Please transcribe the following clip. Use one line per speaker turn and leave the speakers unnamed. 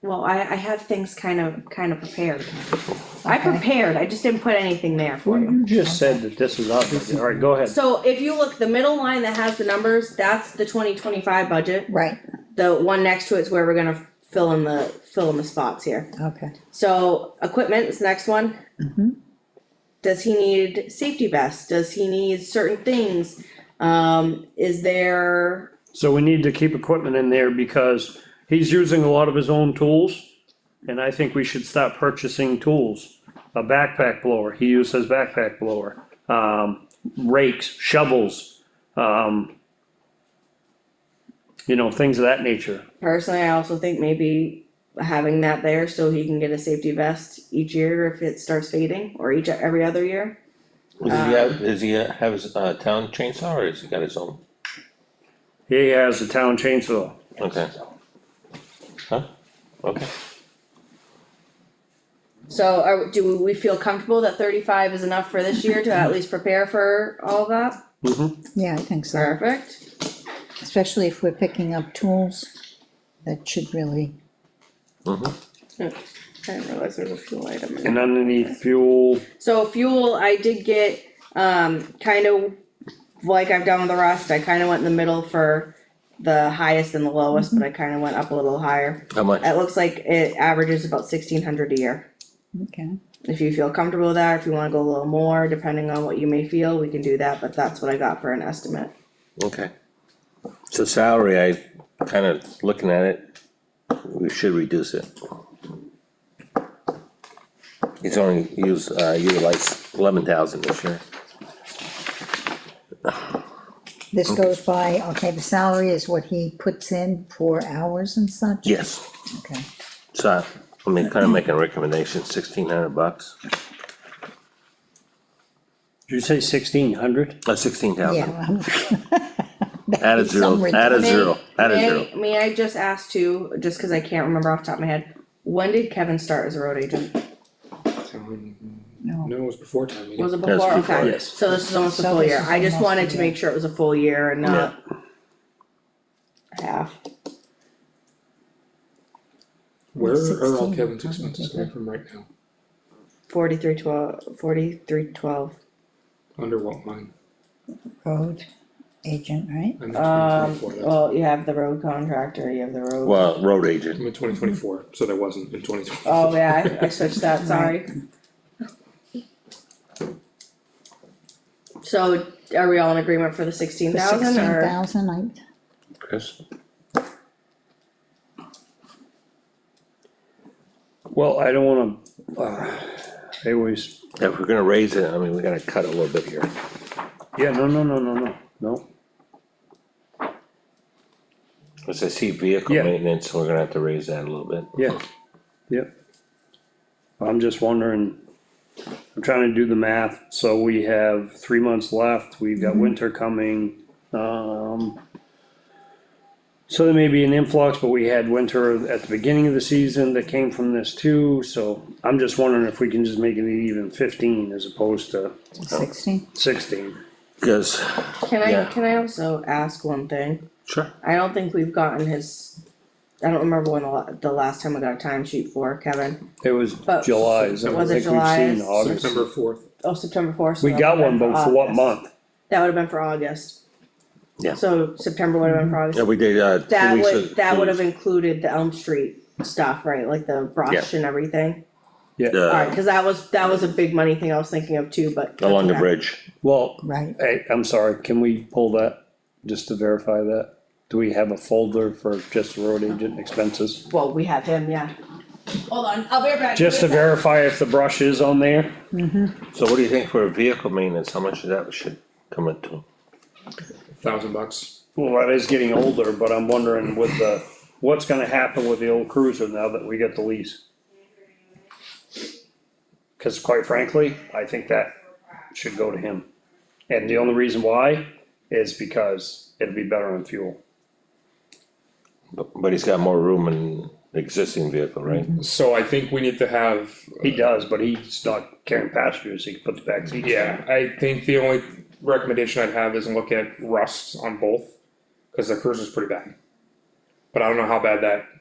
Well, I, I have things kind of, kind of prepared. I
Okay.
prepared, I just didn't put anything there for
Well,
you.
you just said that this is obvious, alright, go ahead.
So if you look, the middle line that has the numbers, that's the twenty twenty-five budget.
Right,
The one next to it's where we're gonna fill in the, fill in the spots here.
okay. Mm-hmm.
So equipment is the next one. Does he need safety vests? Does he need certain things? Um, is there,
So we need to keep equipment in there because he's using a lot of his own tools. And I think we should stop purchasing tools. A backpack blower, he uses backpack blower, um, rakes, shovels, um. You know, things of that nature.
personally, I also think maybe having that there so he can get a safety vest each year if it starts fading or each, every other year.
Does he
Um,
have, does he have his, uh, town chainsaw or has he got his own?
He has a town chainsaw.
Okay. Huh? Okay,
So are, do we feel comfortable that thirty-five is enough for this year to at least prepare for all that?
Mhm.
Yeah, I think so,
Perfect.
especially if we're picking up tools, that should really,
I didn't realize there was a fuel item. in there.
And underneath fuel,
So fuel, I did get, um, kind of like I've done with the rest, I kind of went in the middle for the highest and the lowest, but I kind of went up a little higher.
how much?
It looks like it averages about sixteen hundred a year.
okay,
If you feel comfortable with that, if you wanna go a little more, depending on what you may feel, we can do that, but that's what I got for an estimate.
Oh.
Okay. So salary, I kind of looking at it, we should reduce it. He's only used, uh, utilized eleven thousand this year.
this goes by, okay, the salary is what he puts in for hours and such?
Yes,
Okay,
so I mean, kind of making a recommendation, sixteen hundred bucks,
did you say sixteen hundred?
uh, sixteen thousand.
yeah. well,
Add a
Some
zero, add a
ridiculous-
zero, add a
May-
zero.
May I just ask too, just cause I can't remember off the top of my head, when did Kevin start as a road agent?
No,
No, it was before town meeting.
Was it
Yes,
before?
before,
Okay,
yes.
so this is almost a
So
full
this
year.
is
I just
almost a
wanted to
year.
make sure it was a full year and not half.
Where are all
16,
Kevin's
probably,
expenses
yeah.
coming from right now?
Forty-three twelve, forty-three twelve.
Under what line?
road agent, right?
I'm in twenty
Um,
twenty-four, that's,
well, you have the road contractor, you have the road.
Well, road agent,
I'm in twenty twenty-four, so there wasn't in twenty twenty.
Oh, yeah, I- I switched that, sorry. So are we all in agreement for the sixteen
For
thousand
sixteen
or?
thousand, I,
Chris,
Well, I don't wanna, uh, anyways.
if we're gonna raise it, I mean, we gotta cut a little bit here.
Yeah, no, no, no, no, no, no,
Cause I see vehicle
Yeah.
maintenance, we're gonna have to raise that a little bit.
yeah, yep. I'm just wondering, I'm trying to do the math, so we have three months left, we've
Mm-hmm.
got winter coming, um. So there may be an influx, but we had winter at the beginning of the season that came from this too, so I'm just wondering if we can just make it even fifteen as opposed to
sixteen,
sixteen.
Cause,
Can I,
Yeah.
can I also ask one thing?
sure,
I don't think we've gotten his, I don't remember when the la- the last time I got a timesheet for Kevin.
It was
But-
July's, I don't
Uh, Was it
think we've seen
July's?
August.
September fourth,
Oh, September fourth.
We got one, but for what month?
That would have been for August.
Yeah.
So September would have been for August.
yeah, we did, uh. two
That
weeks
would,
of-
that
two
would have
weeks.
included the Elm Street stuff, right, like the brush and everything? Alright,
Uh,
cause that was, that was a big money thing I was thinking of too, but.
along the
Okay.
bridge,
Well,
right,
Hey, I'm sorry, can we pull that, just to verify that? Do we have a folder for just road agent expenses?
Well, we have him, yeah. Hold on, I'll be right back.
Just to verify if the brush is on there?
so what do you think for a vehicle maintenance, how much of that should come into?
thousand bucks.
Well, that is getting older, but I'm wondering with the, what's gonna happen with the old cruiser now that we get the lease? Cause quite frankly, I think that should go to him. And the only reason why is because it'd be better on fuel.
But, but he's got more room in the existing vehicle, right?
So I think we need to have,
He does, but he's not carrying passengers, he can put the back seats. in.
yeah, I think the only recommendation I'd have is look at rust on both, cause the cruiser's pretty bad. But I don't know how bad that